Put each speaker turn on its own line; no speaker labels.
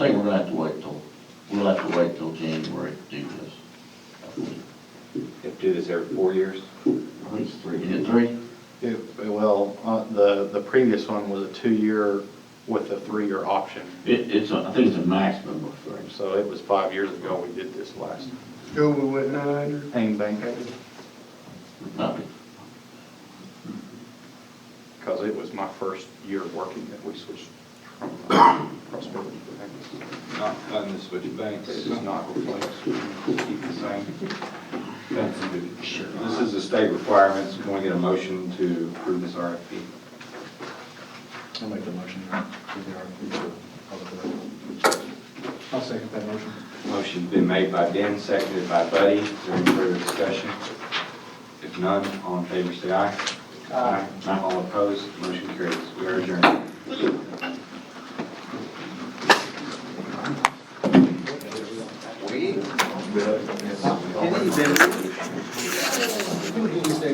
We'll have to wait till, we'll have to wait till January to do this. I think.
You have to do this every four years?
I think it's three. Is it three?
It, well, uh, the, the previous one was a two-year with a three-year option.
It, it's, a- I think it's a maximum of three.
So it was five years ago we did this last.
Go with what, nine hundred?
Payne Bank,
Probably.
because it was my first year working that we switched from uh, Prosperity to Bank.
Not, not in the switch banks.
This is not replaced.
Keep the same. That's good. This is a state requirement, so can we get a motion to approve this RFP?
I'll make the motion to the RFP for public I'll second that motion.
Motion's been made by Ben, seconded by Buddy. Is there any further discussion? If none, all in favor, say aye. Aye. All opposed, motion carries. We are adjourned.